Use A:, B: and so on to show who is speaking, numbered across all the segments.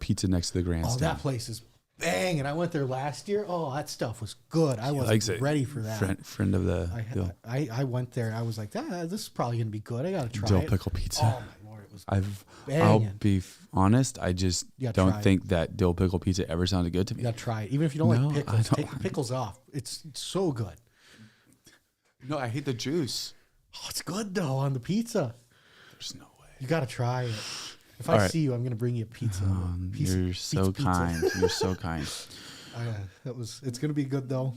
A: pizza next to the
B: Oh,
A: grandstand.
B: that place is bang! And I went there last year. Oh, that stuff was good. I
A: likes it.
B: wasn't ready for that.
A: friend, friend of the
B: I,
A: the
B: I I went there and I was like, ah, this is probably gonna be good. I gotta try
A: dill
B: it.
A: pickle pizza.
B: Oh my lord, it was.
A: I've I'll
B: Banging.
A: be f- honest. I just
B: Yeah,
A: don't
B: try it.
A: think that dill pickle pizza ever sounded good to me.
B: You gotta try it, even if you don't
A: No, I
B: like pickles.
A: don't
B: Take the
A: like-
B: pickles off. It's, it's so good.
A: No, I hate the juice.
B: Oh, it's good though on the pizza.
A: There's no way.
B: You gotta try it. If
A: All
B: I
A: right.
B: see you, I'm gonna bring you a pizza.
A: Um,
B: Piece-
A: you're
B: piece
A: so
B: pizza.
A: kind. You're so kind.
B: I, uh, that was. It's gonna be good though.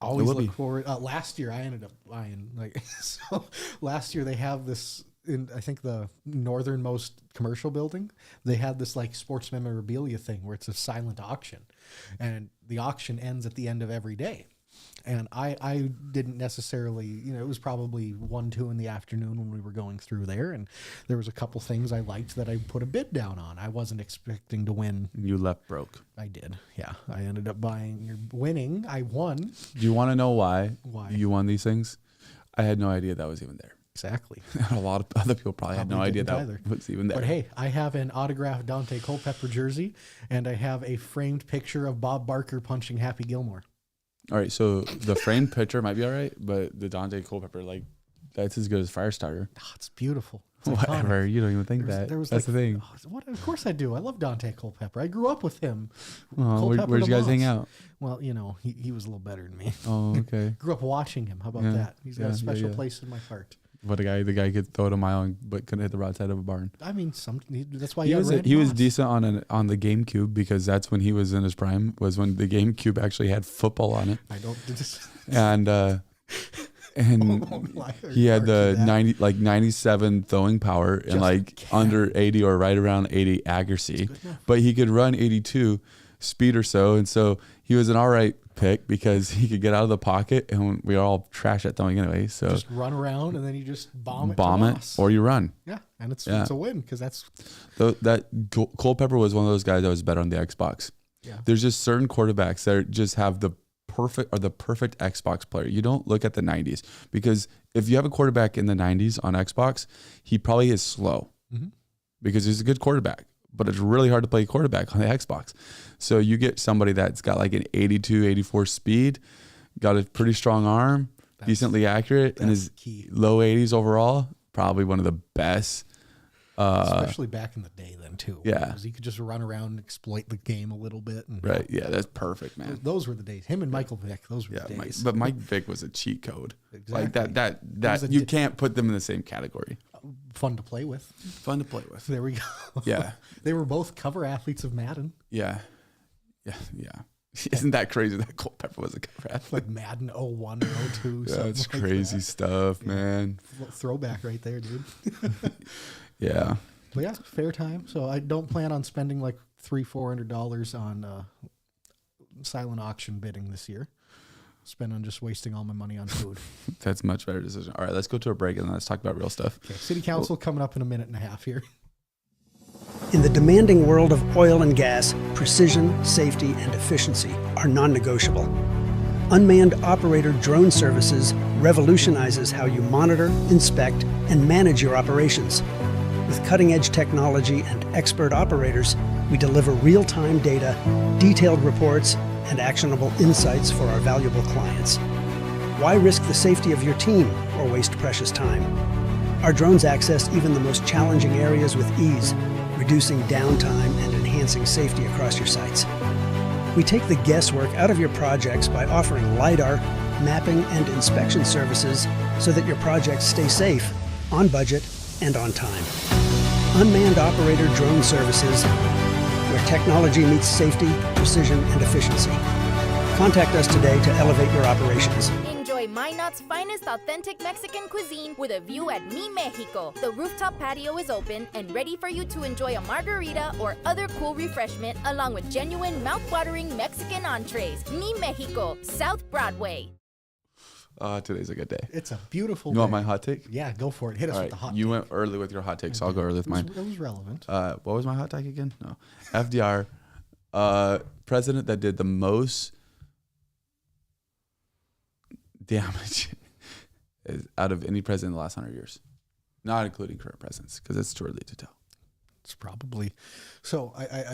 B: Always
A: will
B: look
A: be.
B: forward. Uh, last year, I ended up buying like so. Last year, they have this in I think the northernmost commercial building. They had this like sports memorabilia thing where it's a silent auction, and the auction ends at the end of every day. And I, I didn't necessarily, you know, it was probably one, two in the afternoon when we were going through there, and there was a couple things I liked that I put a bid down on. I wasn't expecting to win
A: You left broke.
B: I did. Yeah, I ended up buying or winning. I won.
A: Do you want to know why?
B: Why?
A: you won these things? I had no idea that was even there.
B: Exactly.
A: a lot of other people probably, had
B: Probably
A: no idea that
B: didn't either.
A: was even there.
B: But hey, I have an autographed Dante Culpepper jersey, and I have a framed picture of Bob Barker punching Happy Gilmore.
A: All right, so the framed picture might be all right, but the Dante Culpepper, like, that's as good as Firestarter.
B: Ah, it's beautiful. It's iconic.
A: Whatever, you don't even think
B: There's-
A: that.
B: there was
A: that's
B: like-
A: the thing.
B: Oh, what, of course I do. I love Dante Culpepper. I grew up with him.
A: Oh, where,
B: Culpepper
A: where'd you
B: the
A: guys hang
B: Boss.
A: out?
B: Well, you know, he, he was a little better than me.
A: Oh, okay.
B: Grew up watching him. How about
A: Yeah,
B: that? He's got
A: yeah,
B: a
A: yeah,
B: special
A: yeah.
B: place in my heart.
A: But the guy, the guy could throw it a mile, and, but couldn't hit the right side of a barn.
B: I mean, some that's why
A: He
B: you
A: was
B: Randy
A: he was
B: Moss.
A: decent on an, on the GameCube because that's when he was in his prime. Was when the GameCube actually had football on it,
B: I don't. Just,
A: and uh,
B: Oh
A: and he had the 90 like 97 throwing power and
B: Just
A: like
B: can't.
A: under 80 or right around 80 accuracy
B: good enough.
A: but he could run 82 speed or so and so he was an all right pick because he could get out of the pocket and when- we are all trash at throwing anyway so
B: just run around and then you just bomb it.
A: uh, bomb
B: to
A: it
B: loss.
A: or you run
B: yeah, and it's
A: Yeah.
B: it's a win because that's
A: Tho- that Col- Culpepper was one of those guys that was better on the Xbox
B: yeah.
A: there's just certain quarterbacks that are- just have the perfect or the perfect Xbox player. You don't look at the 90s because if you have a quarterback in the 90s on Xbox, he probably is slow
B: Mhm.
A: because he's a good quarterback, but it's really hard to play quarterback on the Xbox. So you get somebody that's got like an 82, 84 speed, got a pretty strong arm,
B: That's-
A: decently accurate, and
B: that's
A: is
B: key,
A: low 80s overall. Probably one of the best. Uh,
B: especially back in the day then too.
A: yeah.
B: because you could just run around and exploit the game a little bit. And
A: right. Yeah, that's perfect, man.
B: those were the days. Him and Michael Vick, those were
A: Yeah,
B: the
A: Mike,
B: days.
A: but Mike Vick was a cheat code. Like
B: Exactly.
A: that, that,
B: was
A: that
B: a
A: you
B: di-
A: can't put them in the same category.
B: Fun to play with.
A: Fun to play with.
B: There we go.
A: Yeah,
B: they were both cover athletes of Madden.
A: yeah, yeah, yeah. Isn't that crazy that Culpepper was a cover athlete?
B: Like Madden 01 or 02.
A: Yeah,
B: something
A: it's
B: like
A: crazy
B: that.
A: stuff, man.
B: Little Throwback right there, dude.
A: Yeah,
B: But yeah, fair time. So I don't plan on spending like three, four hundred dollars on uh, silent auction bidding this year. Spend on just wasting all my money on food.
A: that's a much better decision. All right, let's go to a break and then let's talk about real stuff.
B: Okay, city council coming up in a minute and a half here.
C: In the demanding world of oil and gas, precision, safety, and efficiency are non negotiable. Unmanned operator drone services revolutionizes how you monitor, inspect, and manage your operations. With cutting edge technology and expert operators, we deliver real time data, detailed reports, and actionable insights for our valuable clients. Why risk the safety of your team or waste precious time? Our drones access even the most challenging areas with ease, reducing downtime and enhancing safety across your sites. We take the guesswork out of your projects by offering LiDAR, mapping, and inspection services so that your projects stay safe, on budget, and on time. Unmanned Operator Drone Services, where technology meets safety, precision, and efficiency. Contact us today to elevate your operations.
D: Enjoy Minot's finest authentic Mexican cuisine with a view at Mi Mexico. The rooftop patio is open and ready for you to enjoy a margarita or other cool refreshment along with genuine mouth-watering Mexican entrees. Mi Mexico, South Broadway.
A: Uh, today's a good day.
B: It's a beautiful.
A: You want
B: day.
A: my hot take?
B: Yeah, go for it. Hit us
A: All right,
B: with the hot.
A: you went early with your hot take, so I'll go early with
B: it, was,
A: mine.
B: it was relevant.
A: uh, what was my hot take again? No, FDR, uh, president that did the most damage is- out of any president in the last hundred years, not including current presidents, because it's too early to tell.
B: It's probably. So I, I,